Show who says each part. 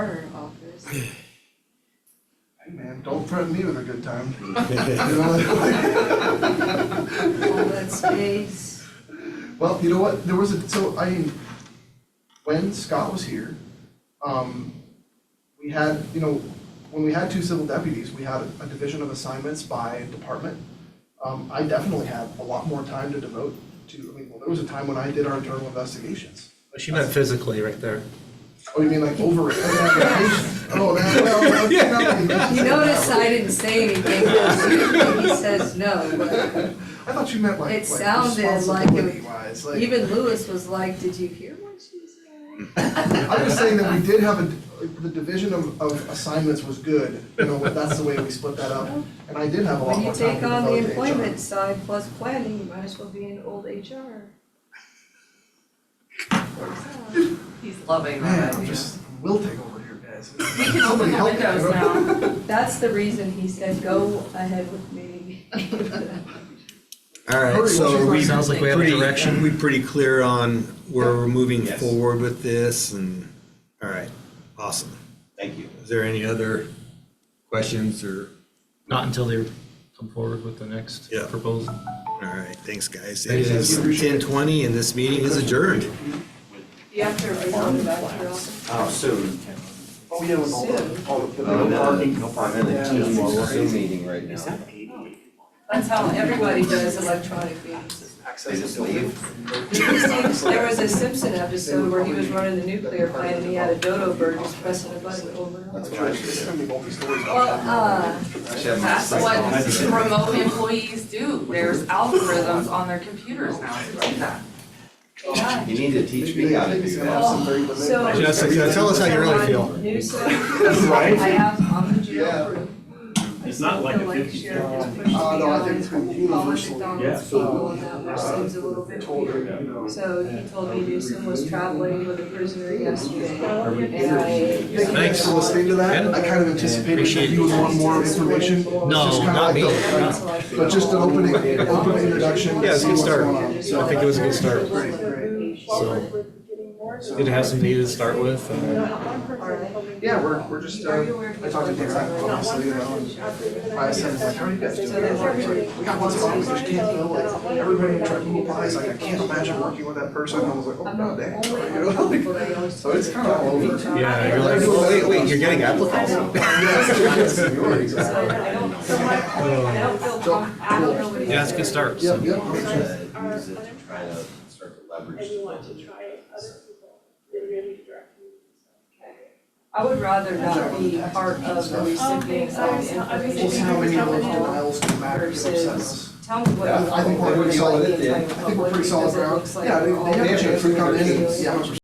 Speaker 1: Hey man, don't threaten me with a good time. You know?
Speaker 2: all that space.
Speaker 1: Well, you know what, there was a, so I, when Scott was here, um, we had, you know, when we had two civil deputies, we had a division of assignments by department. Um, I definitely had a lot more time to devote to, I mean, well, there was a time when I did our internal investigations.
Speaker 3: Oh, She meant physically right there.
Speaker 1: Oh, you mean like over, oh, that, oh, that, well, okay, not like-
Speaker 2: You notice I didn't say anything, 'cause usually he says no,
Speaker 1: I thought you meant like,
Speaker 2: It
Speaker 1: like
Speaker 2: sounded like it-
Speaker 1: responsibility wise,
Speaker 2: but
Speaker 1: like.
Speaker 2: even Lewis was like, did you hear what she said?
Speaker 1: I'm just saying that we did have a, the division of, of assignments was good, you know, that's the way we split that up. And I did have a lot
Speaker 2: When you
Speaker 1: more time to
Speaker 2: take on the
Speaker 1: devote to HR.
Speaker 2: employment side plus planning, you might as well be an old HR. Works out.
Speaker 4: He's loving
Speaker 1: Man,
Speaker 4: that
Speaker 1: I'm
Speaker 4: idea.
Speaker 1: just, we'll take over here, guys.
Speaker 4: We can
Speaker 1: Somebody
Speaker 4: open the
Speaker 1: help me,
Speaker 4: windows
Speaker 1: you know?
Speaker 4: now.
Speaker 2: That's the reason he said, go ahead with me.
Speaker 5: All right,
Speaker 1: Hurry,
Speaker 5: so
Speaker 1: what's
Speaker 5: are
Speaker 1: your
Speaker 5: we.
Speaker 3: Sounds like we have a
Speaker 5: pretty-
Speaker 3: direction.
Speaker 5: are We pretty clear on where we're moving
Speaker 6: Yes.
Speaker 5: forward with this and, all right, awesome.
Speaker 6: Thank you.
Speaker 5: Is there any other questions or,
Speaker 3: Not until they come forward with the next
Speaker 5: Yeah.
Speaker 3: proposal.
Speaker 5: all right, thanks, guys.
Speaker 3: Thank
Speaker 5: It
Speaker 3: you.
Speaker 5: is ten twenty and this meeting is adjourned.
Speaker 2: You have to, are you going back to your office?
Speaker 6: Oh, soon.
Speaker 1: Oh, yeah, with all the, all the,
Speaker 6: I'm in
Speaker 1: the
Speaker 6: a-
Speaker 1: parking, no
Speaker 6: I'm
Speaker 1: parking.
Speaker 6: in a
Speaker 1: Yeah,
Speaker 6: team
Speaker 1: it's
Speaker 6: Zoom
Speaker 1: crazy.
Speaker 6: meeting right now.
Speaker 2: That's how everybody does electronic meetings.
Speaker 1: Access
Speaker 6: Just
Speaker 1: is
Speaker 6: leave.
Speaker 2: There was a Simpson episode where he was running the nuclear plant and he had a dodo bird just pressing a button over and over.
Speaker 1: That's right, it's gonna be multi-stories.
Speaker 2: Well, uh,
Speaker 4: That's what remote employees do. There's algorithms on their computers now to do that.
Speaker 2: AI.
Speaker 6: You need to teach me how to do
Speaker 2: Oh.
Speaker 6: that.
Speaker 2: So-
Speaker 5: Jessica, tell us how you really feel.
Speaker 2: Newsom,
Speaker 1: Right?
Speaker 2: I have on the
Speaker 1: Yeah.
Speaker 2: jail crew.
Speaker 7: It's not like a
Speaker 2: Like
Speaker 7: 50
Speaker 2: sheriff
Speaker 1: um,
Speaker 2: just pushed
Speaker 1: uh, no, I think it's
Speaker 2: beyond
Speaker 1: been universally,
Speaker 7: yeah,
Speaker 2: McDonald's
Speaker 7: so,
Speaker 2: people and that, which
Speaker 1: uh,
Speaker 2: seems a little bit
Speaker 1: Told her,
Speaker 2: weird.
Speaker 1: you know.
Speaker 2: So he told me Newsom was traveling with a prisoner yesterday and I.
Speaker 3: Thanks.
Speaker 1: for listening to that.
Speaker 3: Yeah.
Speaker 1: I kind of anticipated that
Speaker 3: Appreciate
Speaker 1: you would
Speaker 3: it.
Speaker 1: want more information. It's
Speaker 2: No,
Speaker 1: just kinda
Speaker 3: not
Speaker 1: like
Speaker 3: me.
Speaker 1: the- But just an opening, open introduction.
Speaker 3: Yeah, it's a good
Speaker 1: see what's
Speaker 3: start.
Speaker 1: going on.
Speaker 3: I think it was a good start.
Speaker 1: Great, great.
Speaker 3: So, good to have some data to start with. uh? and-
Speaker 1: Yeah, we're, we're just, uh,
Speaker 2: Are you aware of
Speaker 1: I talked to
Speaker 2: the-
Speaker 1: Dan, obviously, you know, and I said, like, how are you guys doing?
Speaker 2: So they work with-
Speaker 1: We got lots of officers, can't deal with, everybody tried to move by, it's like, I can't imagine working with that person, and I was like, oh,
Speaker 2: I'm
Speaker 1: no,
Speaker 2: not
Speaker 1: damn.
Speaker 2: the only
Speaker 1: You know, like,
Speaker 2: people that always.
Speaker 1: So it's kinda all over.
Speaker 3: Yeah, you're
Speaker 1: like, well, wait, wait, you're
Speaker 5: getting applicants?
Speaker 1: Yeah, seniority,
Speaker 2: So
Speaker 1: exactly.
Speaker 2: I don't, so my point, I don't feel, com- I don't know what it is.
Speaker 3: Yeah, it's a good
Speaker 1: Yep,
Speaker 3: start. So,
Speaker 1: yep.
Speaker 6: Try to use it to try to start to leverage.
Speaker 8: and you want to try it, other people, they're really directing you.
Speaker 2: I would rather not be part of the recipient of
Speaker 1: We'll see how many of those
Speaker 2: information.
Speaker 1: denials come back, you know, upset us.
Speaker 2: Versus, tell me what.
Speaker 1: Yeah, I think we're pretty solid
Speaker 6: at the end.
Speaker 1: I think we're pretty solid ground. Yeah, they, they have a chance to come in and see how much